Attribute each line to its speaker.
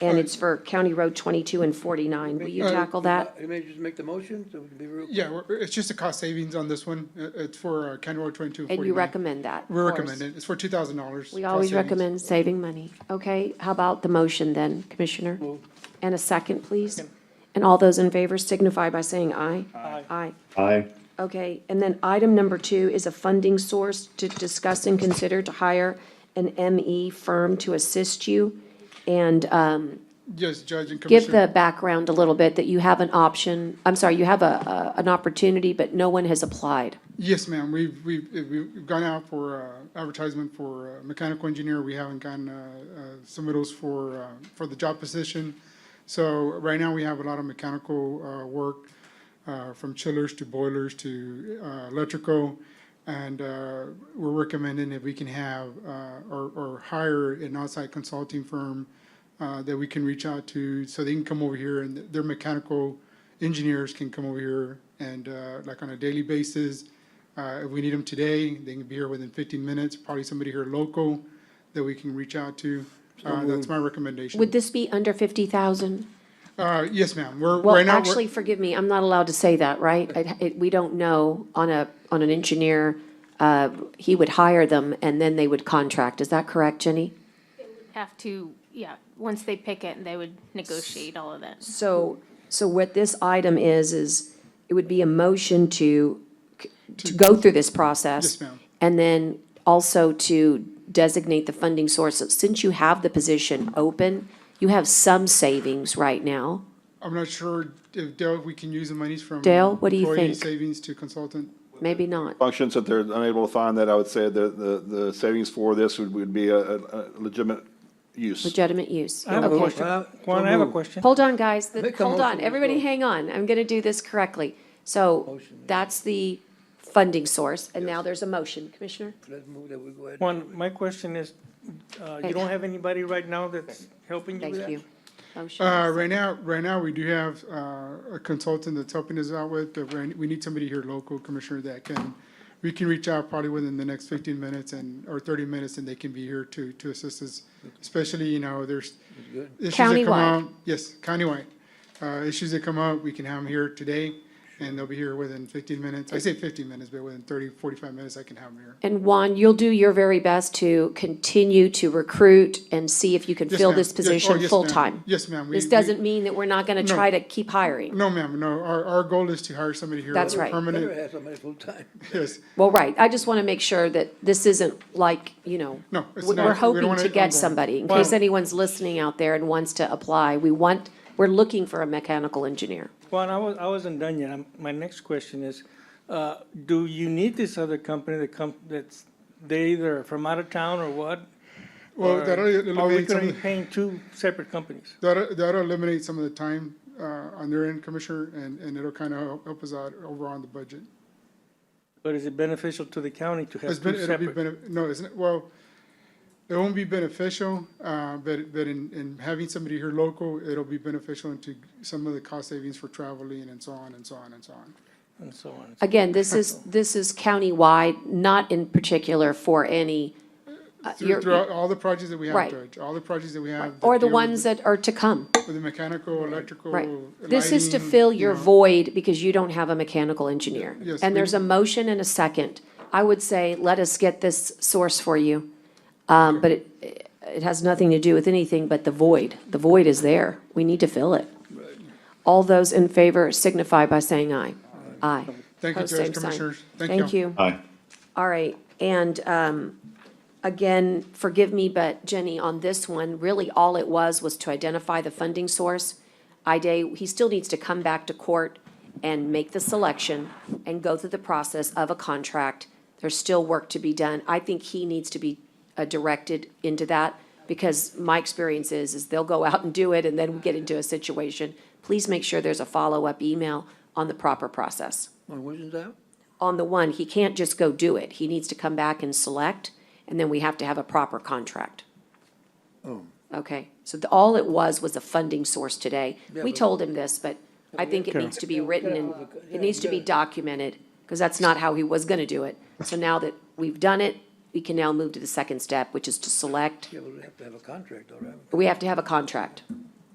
Speaker 1: and it's for County Road twenty-two and forty-nine. Will you
Speaker 2: Uh,
Speaker 1: tackle that?
Speaker 2: Uh, Maybe just make the motion, so we can be real.
Speaker 3: Yeah, we're- it's just a cost savings on this one. It- It's for uh, County Road twenty-two
Speaker 1: And you
Speaker 3: forty-nine.
Speaker 1: recommend that?
Speaker 3: We
Speaker 1: of course.
Speaker 3: recommend it. It's for two thousand dollars.
Speaker 1: We always recommend saving money. Okay, how about the motion then, Commissioner? And a second, please? And all those in favor signify by saying aye. Aye. Aye.
Speaker 4: Aye.
Speaker 1: Okay, and then item number two is a funding source to discuss and consider to hire an ME firm to assist you. And um,
Speaker 3: Yes, Judge and
Speaker 1: give
Speaker 3: Commissioner.
Speaker 1: the background a little bit, that you have an option, I'm sorry, you have a, a- an opportunity, but no one has applied.
Speaker 3: Yes, ma'am. We've, we've, we've gone out for uh, advertisement for uh, mechanical engineer. We haven't gotten uh, uh, submittals for, uh, for the job position. So right now, we have a lot of mechanical uh, work, uh, from chillers to boilers to uh, electrical. And uh, we're recommending if we can have uh, or, or hire an outside consulting firm uh, that we can reach out to, so they can come over here and their mechanical engineers can come over here and uh, like on a daily basis. Uh, If we need them today, they can be here within fifteen minutes, probably somebody here local that we can reach out to. Uh, That's my
Speaker 1: Would
Speaker 3: recommendation.
Speaker 1: this be under 50,000?
Speaker 3: Uh, Yes, ma'am. We're, right
Speaker 1: Well,
Speaker 3: now,
Speaker 1: actually,
Speaker 3: we're-
Speaker 1: forgive me, I'm not allowed to say that, right? It- it- We don't know on a, on an engineer, uh, he would hire them and then they would contract. Is that correct, Jenny?
Speaker 5: have to, yeah, once they pick it, they would negotiate all of that.
Speaker 1: So, so what this item is, is it would be a motion to, to go through this process.
Speaker 3: Yes, ma'am.
Speaker 1: And then also to designate the funding source. So Since you have the position open, you have some savings right now.
Speaker 3: I'm not sure if Dale, if we can use the monies from.
Speaker 1: Dale, what do you
Speaker 3: employee
Speaker 1: think?
Speaker 3: Savings to consultant.
Speaker 1: Maybe not.
Speaker 4: Functions that they're unable to find that, I would say the, the, the savings for this would, would be a, a a legitimate use.
Speaker 1: Legitimate use.
Speaker 6: I have a
Speaker 1: Okay.
Speaker 6: question. Juan, I have a question.
Speaker 1: Hold on, guys. The-
Speaker 2: Make a
Speaker 1: Hold
Speaker 2: motion
Speaker 1: on.
Speaker 2: as
Speaker 1: Everybody
Speaker 2: well.
Speaker 1: hang on. I'm going to do this correctly. So that's the funding source, and now there's a motion. Commissioner?
Speaker 2: Let's move that, we go ahead.
Speaker 6: Juan, my question is, uh, you don't have anybody right now that's helping you with that?
Speaker 1: Thank you. Motion.
Speaker 3: Uh, right now, right now, we do have, uh, a consultant that's helping us out with, but we, we need somebody here local, Commissioner, that can, we can reach out probably within the next fifteen minutes and, or thirty minutes, and they can be here to, to assist us. Especially, you know, there's issues that come
Speaker 1: Countywide.
Speaker 3: out. Yes, countywide. Uh, issues that come up, we can have them here today, and they'll be here within fifteen minutes. I say fifteen minutes, but within 30, 45 minutes, I can have them here.
Speaker 1: And Juan, you'll do your very best to continue to recruit and see if you can
Speaker 3: Yes,
Speaker 1: fill
Speaker 3: ma'am.
Speaker 1: this
Speaker 3: Yes- oh,
Speaker 1: position
Speaker 3: yes, ma'am.
Speaker 1: full-time.
Speaker 3: Yes, ma'am. We-
Speaker 1: This
Speaker 3: we-
Speaker 1: doesn't mean that we're not going to
Speaker 3: No.
Speaker 1: try to keep hiring.
Speaker 3: No, ma'am, no. Our, our goal is to hire somebody here.
Speaker 1: That's right.
Speaker 2: Better
Speaker 3: Permanent,
Speaker 2: have somebody full-time.
Speaker 3: yes.
Speaker 1: Well, right, I just want to make sure that this isn't like, you know,
Speaker 3: No, it's
Speaker 1: we-
Speaker 3: not.
Speaker 1: we're
Speaker 3: We don't
Speaker 1: hoping
Speaker 3: want
Speaker 1: to
Speaker 3: it
Speaker 1: get
Speaker 3: ongoing.
Speaker 1: somebody, in
Speaker 6: Wow.
Speaker 1: case anyone's listening out there and wants to apply. We want, we're looking for a mechanical engineer.
Speaker 6: Juan, I was, I wasn't done yet. I'm- My next question is, uh, do you need this other company that come, that's, they either from out of town or what?
Speaker 3: Well,
Speaker 6: Or
Speaker 3: that'll
Speaker 6: Are we
Speaker 3: eliminate some,
Speaker 6: gonna be
Speaker 3: of the-
Speaker 6: paying two separate companies?
Speaker 3: that'll, that'll eliminate some of the time, uh, on their end, Commissioner, and, and it'll kind of help us out overall on the budget.
Speaker 6: But is it beneficial to the county to
Speaker 3: It's
Speaker 6: have
Speaker 3: been,
Speaker 6: two
Speaker 3: it'll be,
Speaker 6: separate?
Speaker 3: bene- no, it's not well, it won't be beneficial, uh, but, but in, in having somebody here local, it'll be beneficial into some of the cost savings for traveling and so on and so on and so on.
Speaker 6: And so on.
Speaker 1: Again, this is, this is countywide, not in particular for any, uh,
Speaker 3: Through-
Speaker 1: you're-
Speaker 3: Throughout all the projects that we have,
Speaker 1: Right.
Speaker 3: Judge, all the projects that we have. that
Speaker 1: or the
Speaker 3: deal with
Speaker 1: ones that are to come.
Speaker 3: With the mechanical, electrical.
Speaker 1: Right. This is to
Speaker 3: lighting,
Speaker 1: fill
Speaker 3: you
Speaker 1: your
Speaker 3: know.
Speaker 1: void because you don't have a mechanical engineer.
Speaker 3: Yes,
Speaker 1: And
Speaker 3: we-
Speaker 1: there's a motion and a second. I would say, let us get this source for you. Um, but it, it has nothing to do with anything but the void. The void is there. We need to fill it. All those in favor signify by saying aye. Aye.
Speaker 3: Thank you,
Speaker 1: Pose
Speaker 3: Judge
Speaker 1: same sign.
Speaker 3: Commissioners. Thank you.
Speaker 1: Thank you.
Speaker 4: Aye.
Speaker 1: All right, and um, again, forgive me, but Jenny, on this one, really all it was was to identify the funding source. IDA, he still needs to come back to court and make the selection and go through the process of a contract. There's still work to be done. I think he needs to be uh, directed into that because my experience is, is they'll go out and do it and then we get into a situation. Please make sure there's a follow-up email on the proper process
Speaker 2: On Wednesday's out?
Speaker 1: on the one, he can't just go do it. He needs to come back and select, and then we have to have a proper contract. Okay, so the, all it was, was a funding source today. We told him this, but I think it needs to be written and, it needs to be documented, because that's not how he was gonna do it. So now that we've done it, we can now move to the second step, which is to select.
Speaker 2: Yeah, but we have to have a contract, all right?
Speaker 1: We have to have a contract.